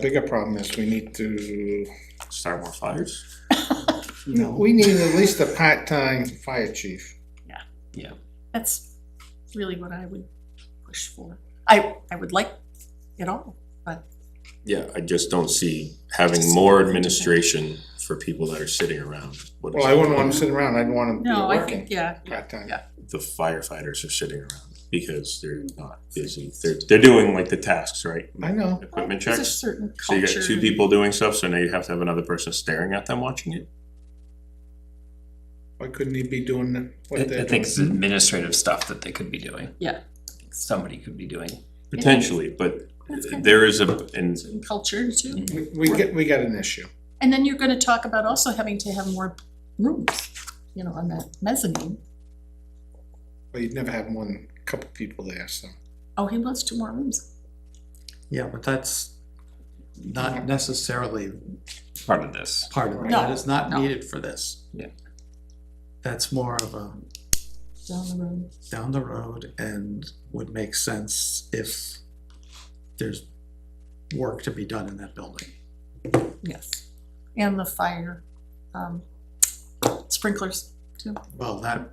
Bigger problem is we need to, Start more fires? we need at least a part-time fire chief. That's really what I would push for. I, I would like it all. Yeah, I just don't see having more administration for people that are sitting around. What Well, I wouldn't want him sitting around, I'd want him to No, be I think, working yeah, part-time. yeah. The firefighters are sitting around because they're not busy. They're, they're doing like the tasks, right? I know, Equipment there's a checks. certain So you culture. got two people doing stuff, so now you have to have another person staring at them watching it. why couldn't he be doing I what I they're think doing? it's administrative stuff that they could be doing. Yeah. Somebody could be doing. Potentially, but That's kind of- there Mm-hmm. is a, and Certain culture too. We, we get, we got an issue. And then you're gonna talk about also having to have more rooms, you know, on that mezzanine. Well, you'd never have more than a couple people there, so. Oh, he wants two more rooms. Yeah, but that's not necessarily Part of this. part of it. No, That is not no. needed for this. Yeah. That's more of a Down the road. down the road and would make sense if there's work to be done in that building. Yes. And the fire, um, sprinklers too. Well, that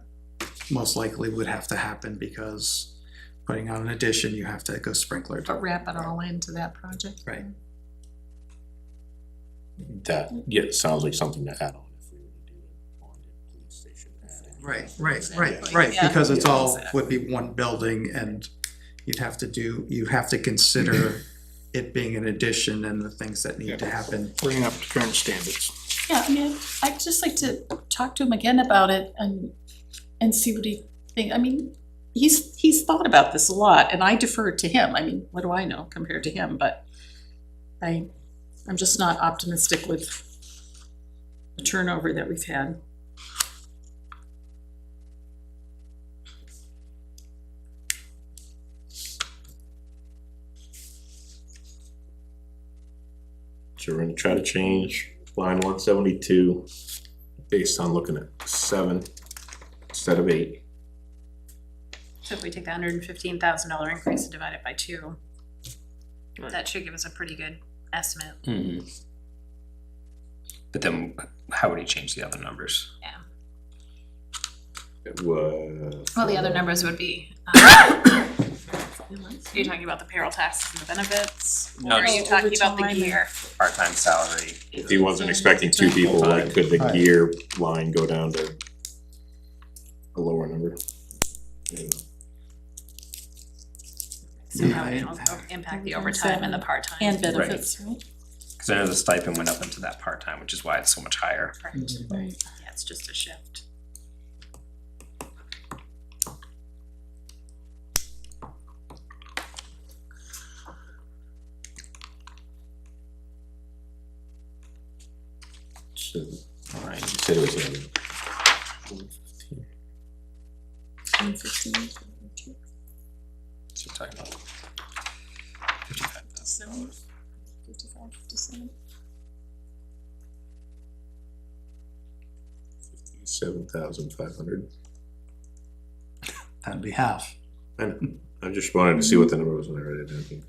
most likely would have to happen because putting on an addition, you have to go sprinkler. But wrap it all into that project. Right. that, yeah, it sounds like something to add on. if we were to do it on the police station. Right, right, right, Exactly. right, Yeah. because it's all, Exactly. would be one building and you'd have to do, you have to consider it being an addition and the things that need to Yeah. happen. Bring up to current standards. Yeah, I mean, I'd just like to talk to him again about it and, and see what he think, I mean, he's, he's thought about this a lot, and I defer to him, I mean, what do I know compared to him, but I, I'm just not optimistic with the turnover that we've had. So we're gonna try to change line one seventy-two based on looking at seven instead of eight. So if we take the hundred and fifteen thousand dollar increase and divide it by two, that should give us a pretty good estimate. Mhm. But then how would he change the other numbers? It was. Well, the other numbers would be, um, are you talking about the payroll taxes and the benefits? Or No, are you just talking about the overtime and- year? Part-time salary. If he wasn't expecting two people, like, could the gear line go down to a lower number? So how it Yeah. will impact the overtime and the part-time? And benefits, right? Cause I know the stipend went up into that part-time, which is why it's so much higher. Correct. Right. Yeah, it's just a shift. So, Alright, you said it was a- And 15, 22. So we're talking about Seven, fifty-five, fifty-seven. seven thousand five hundred. That'd be half. I know. I just wanted to see what the number was when I read it, I think.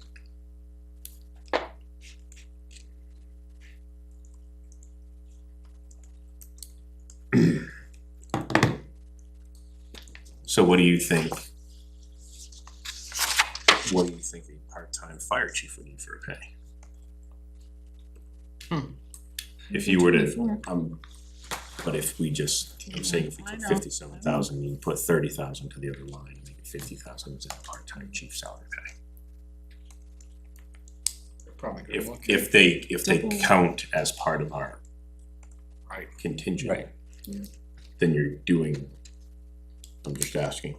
So what do you think? What do you think a part-time fire chief would need for pay? Hmm. If you were to, Twenty-four. um, but if we just, I'm saying if we I took know. fifty-seven thousand, you put thirty thousand to the other line, and make it fifty thousand as a part-time chief salary pay. Probably good If, luck. if they, if they Double. count as part of our contingent, Right. then you're doing, I'm just asking.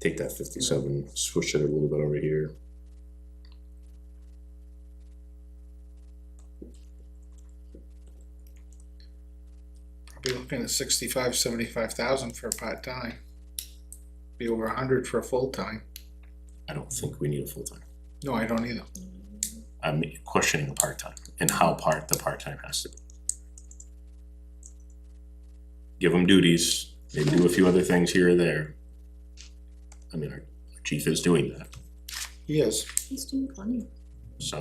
Take that fifty-seven, switch it a little bit over here. Be looking at sixty-five, seventy-five thousand for a part-time. Be over a hundred for a full-time. I don't think we need a full-time. No, I don't either. I'm questioning a part-time and how part the part-time has to be. Give them duties, maybe do a few other things here or there. I mean, our chief is doing that. He is. He's doing plenty. so